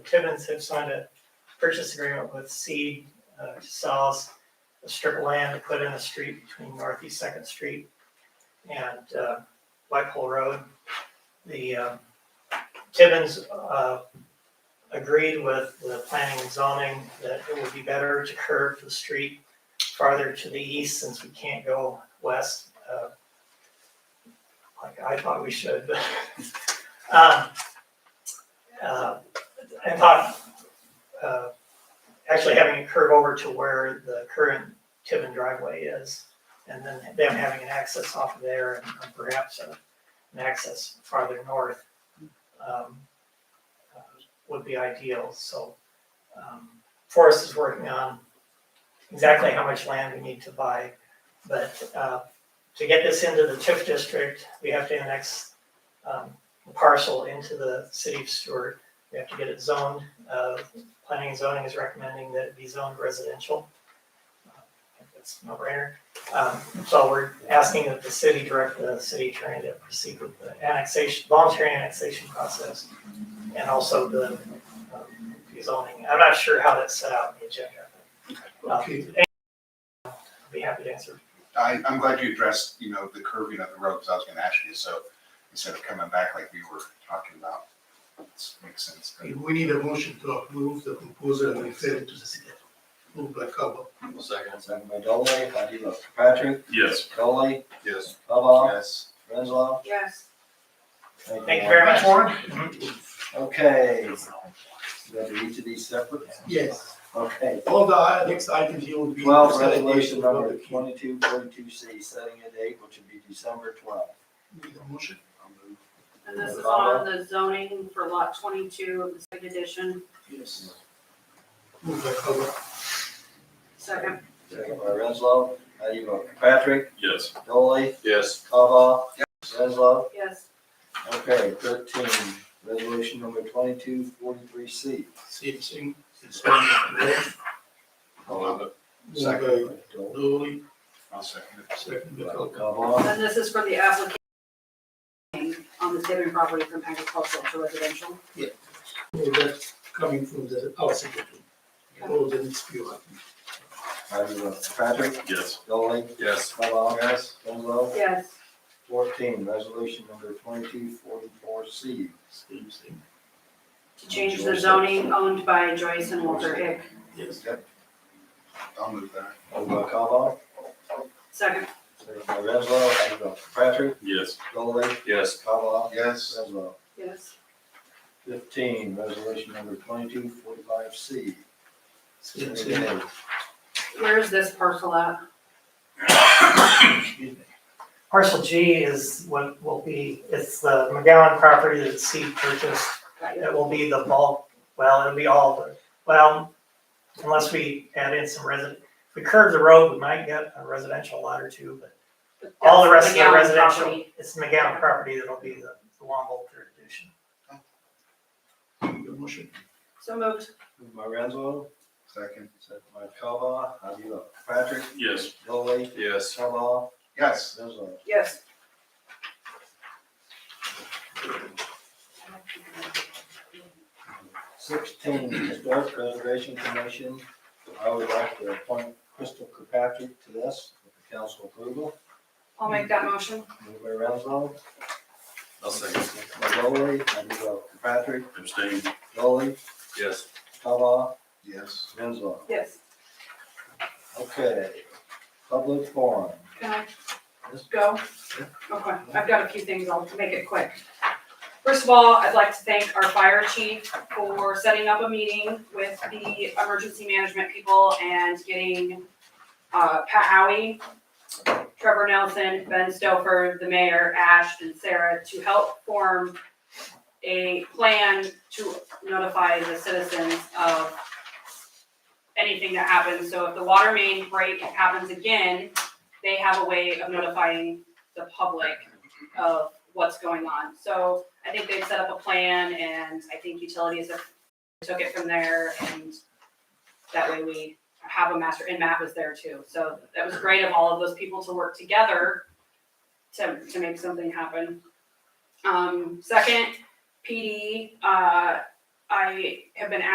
Tibbins have signed a purchase agreement with Seed uh, to sell us a strip of land to put in a street between Northeast Second Street and uh, Whitehall Road. The uh, Tibbins uh, agreed with the planning and zoning that it would be better to curve the street farther to the east since we can't go west. uh, Like I thought we should, but. um, uh, I thought, uh, actually having it curve over to where the current Tibbin driveway is, and then them having an access off of there and perhaps a- an access farther north, um, uh, would be ideal, so, um, Forrest is working on exactly how much land we need to buy, but, uh, to get this into the TIF district, we have to annex, um, a parcel into the city of Stewart. We have to get it zoned, uh, planning and zoning is recommending that it be zoned residential. Uh, That's no brainer. Um, so we're asking that the city direct the city attorney to proceed with the annexation, voluntary annexation process. And also the, um, zoning. I'm not sure how that's set out in the agenda. Uh, Okay, I'd Be happy to answer. I, I'm glad you addressed, you know, the curving of the road, because I was gonna ask you, so instead of coming back like we were talking about, it makes sense. but- We need a motion to approve the proposal and refer it to the city. Moved by Cabo. Second. Second by Dolly, how do you vote? Patrick? Yes. Dolly? Yes. Bubba? Yes. Renslow? Yes. Thank you very much. Warren? Okay. You have to each of these separate? Yes. Okay. All the i- next items here will be. Twelve, consolidation resolution of number the- twenty-two forty-two C, setting a date which would be December twelfth. Need a motion? And this is on the zoning for lot twenty-two of the second edition, Yes. Moved by Cabo. second. Second by Renslow, how do you vote? Patrick? Yes. Dolly? Yes. Bubba? Renslow? Yes. Okay, thirteen, resolution number twenty-two forty-three C. Same thing. Suspend the rules. Moved by Dolly. Dolly, I'll second it. second by Cabo. Bubba? And this is for the application on the Tibbin property from agricultural to residential. All that coming from the outside. All the next few items. How do you vote? Patrick? Yes. Dolly? Yes. Bubba? Yes. Renslow? Yes. Fourteen, resolution number twenty-two forty-four C. Same thing. To change the zoning owned by Joyce and Walter Hick. Yes. I'll move that. Moved by Cobba, Second. second by Renzo, how do you vote? Patrick, Yes. Dolly, Yes. Cobba, Yes. Renzo. Yes. Fifteen, resolution number twenty-two forty-five C. Same thing. Where is this parcel at? Excuse me. Parcel G is what will be, it's the McGowan property that Seed purchased. Got you. It will be the bulk, well, it'll be all the, well, unless we add in some resident, if we curve the road, we might get a residential lot or two, but all the rest of the McGowan residential, property. it's the McGowan property that'll be the, the Wamble jurisdiction. Need a motion? So moved. Moved by Renzo, Second. second by Cobba, how do you vote? Patrick, Yes. Dolly, Yes. Cobba, Yes. Renzo. Yes. Sixteen, historic preservation commission, I would like to appoint Crystal Kirkpatrick to this, with the council approval. I'll make that motion. Moved by Renzo, I'll second. second by Dolly, how do you vote? Kirkpatrick, Abstain. Dolly, Yes. Cobba, Yes. Renzo. Yes. Okay, public forum. Can I go? Okay, I've got a few things, I'll make it quick. First of all, I'd like to thank our fire chief for setting up a meeting with the emergency management people and getting uh, Pat Howie, Trevor Nelson, Ben Stouffer, the mayor, Ash, and Sarah to help form a plan to notify the citizens of anything that happens. So if the water main break happens again, they have a way of notifying the public of what's going on. So I think they've set up a plan and I think utilities have took it from there and that way we have a master, and Matt was there too. So that was great of all of those people to work together to, to make something happen. Um, second, PD, uh, I have been